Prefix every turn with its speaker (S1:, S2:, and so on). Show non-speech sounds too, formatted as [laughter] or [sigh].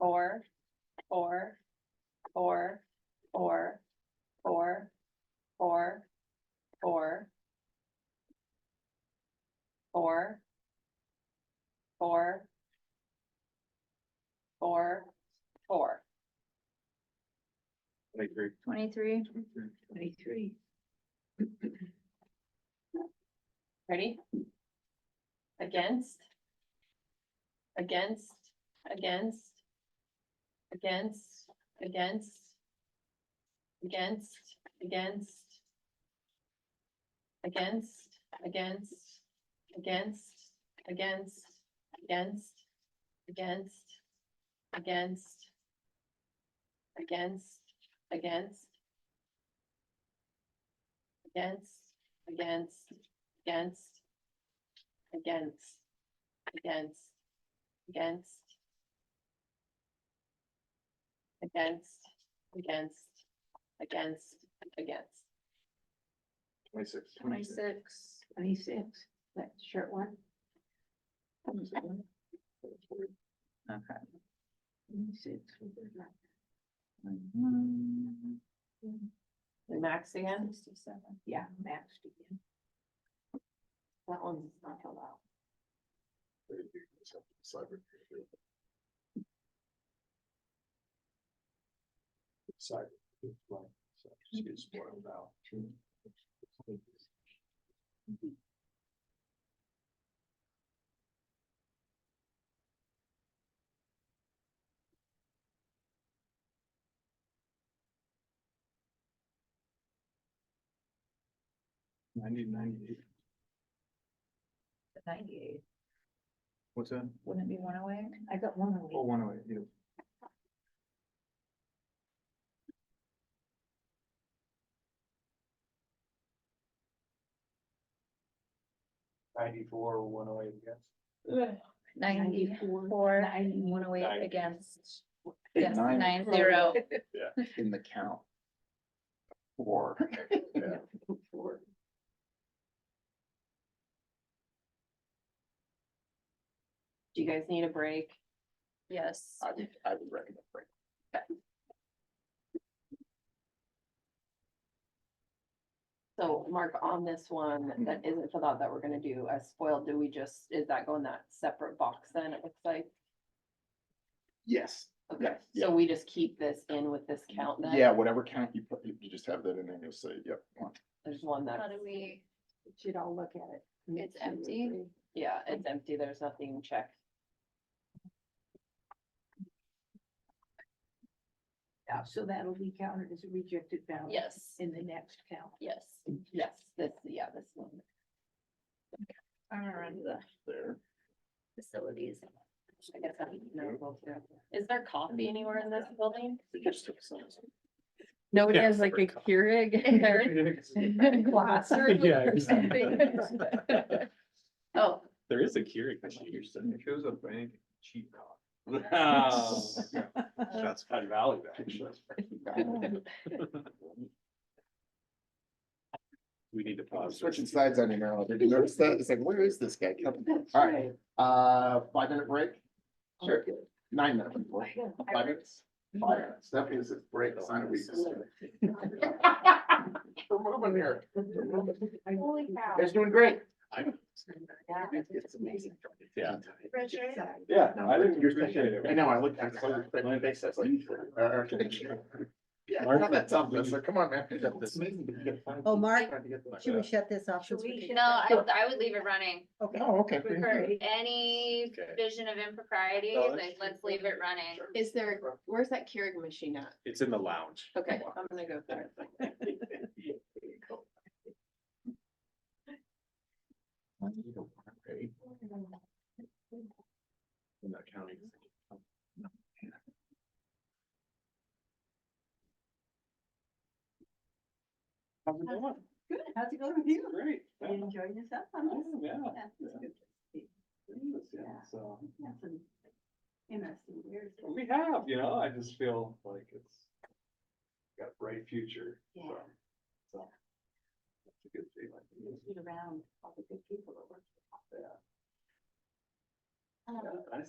S1: or, or, or, or, or, or, or, or, or, or, or.
S2: Twenty-three.
S3: Twenty-three.
S4: Twenty-three.
S1: Ready? Against. Against, against. Against, against. Against, against. Against, against, against, against, against, against, against. Against, against. Against, against against, against, against, against, against, against, against, against.
S2: Twenty-six.
S3: Twenty-six.
S4: Twenty-six, that short one.
S3: Okay.
S4: Twenty-six.
S3: Mhm.
S1: We maxed again?
S3: Sixty-seven.
S4: Yeah, maxed again. That one's not allowed.
S2: Cyber. Cyber. Just get spoiled out. Ninety, ninety-eight,
S4: Ninety-eight.
S2: what's that?
S3: Wouldn't it be one oh away?
S4: I got one of
S2: Oh,
S4: these.
S2: one oh eight, yeah. Ninety-four, one oh eight, yes.
S3: Ninety-four,
S4: Ninety.
S3: one away
S2: Ninety.
S3: against. Against
S5: Nine.
S3: nine zero.
S5: in the count. Or
S2: Yeah.
S4: Four.
S1: Do you guys need a break?
S3: Yes.
S5: I would, I [laughs] would recommend. break.
S1: So Mark, on this one, that isn't filled out that we're gonna do as spoiled, do we just, is that going that separate box then, it looks like?
S5: Yes,
S1: Okay,
S5: Yeah,
S1: so we just keep this in with this count then?
S5: yeah, whatever count you put, you you just have that in there, you'll say, yep. one.
S1: There's one
S3: How
S1: that,
S3: do we,
S4: We Should all look at it.
S3: It's empty?
S1: yeah, it's empty, there's nothing checked.
S4: Yeah, so that'll be counted as a rejected ballot.
S1: Yes,
S4: In the next count.
S1: yes, yes, this, yeah, this one.
S3: I'm gonna run to the
S5: There,
S3: facilities.
S1: I guess I'm notable too. Is there coffee anywhere in this building?
S5: it just took some.
S3: Nobody
S2: Yeah, has, like, a
S3: Keurig in Glass or
S2: Yeah,
S3: something. Oh,
S5: There is a Keurig machine. You're sitting
S2: Shows up bank, cheap cop.
S5: there. Oh.
S2: [laughs]
S5: That's kind of valid, actually.
S2: We need to pause.
S5: Switching sides on you now. Did you notice that? It's like, where is this guy coming from? All right, uh, five minute break? Sure, nine minute break. Oh. Five minutes? Five minutes. That means it's break, it's not a [laughs] week. We're moving here.
S4: Holy cow.
S5: You guys doing great.
S4: Yeah.
S5: It's amazing. Yeah.
S2: Yeah, I didn't appreciate
S5: I
S2: it.
S5: know, I looked, I saw your pregnant face, I was like. uh, uh, Yeah, it's not that tough, it's like, come on, man. It's amazing that you get five
S6: Oh,
S5: people
S6: Mark,
S5: trying to get like
S6: Should we
S5: that.
S6: shut this off?
S4: Should
S6: since
S4: we?
S6: we?
S3: no, I, I would leave it running.
S6: Okay.
S5: Oh, okay.
S3: For any
S5: Okay.
S3: vision of impropriety,
S5: No, that's
S3: like,
S5: true.
S3: let's leave it running.
S1: Is there, where's that Keurig machine at?
S2: It's in the lounge.
S1: Okay, I'm gonna go there.
S2: In that county. How's it going?
S4: Good, how's it going with you?
S2: Great.
S4: You
S2: Yeah,
S4: enjoying yourself?
S2: yeah.
S4: That's good.
S2: Yes, yeah, So,
S4: Yeah, some Interesting, years.
S2: we have, you know, I just feel like it's got a bright future.
S4: Yeah.
S2: So. That's a good feeling.
S4: Around all the good people that work.
S2: Yeah.
S4: Um,
S2: Yeah, I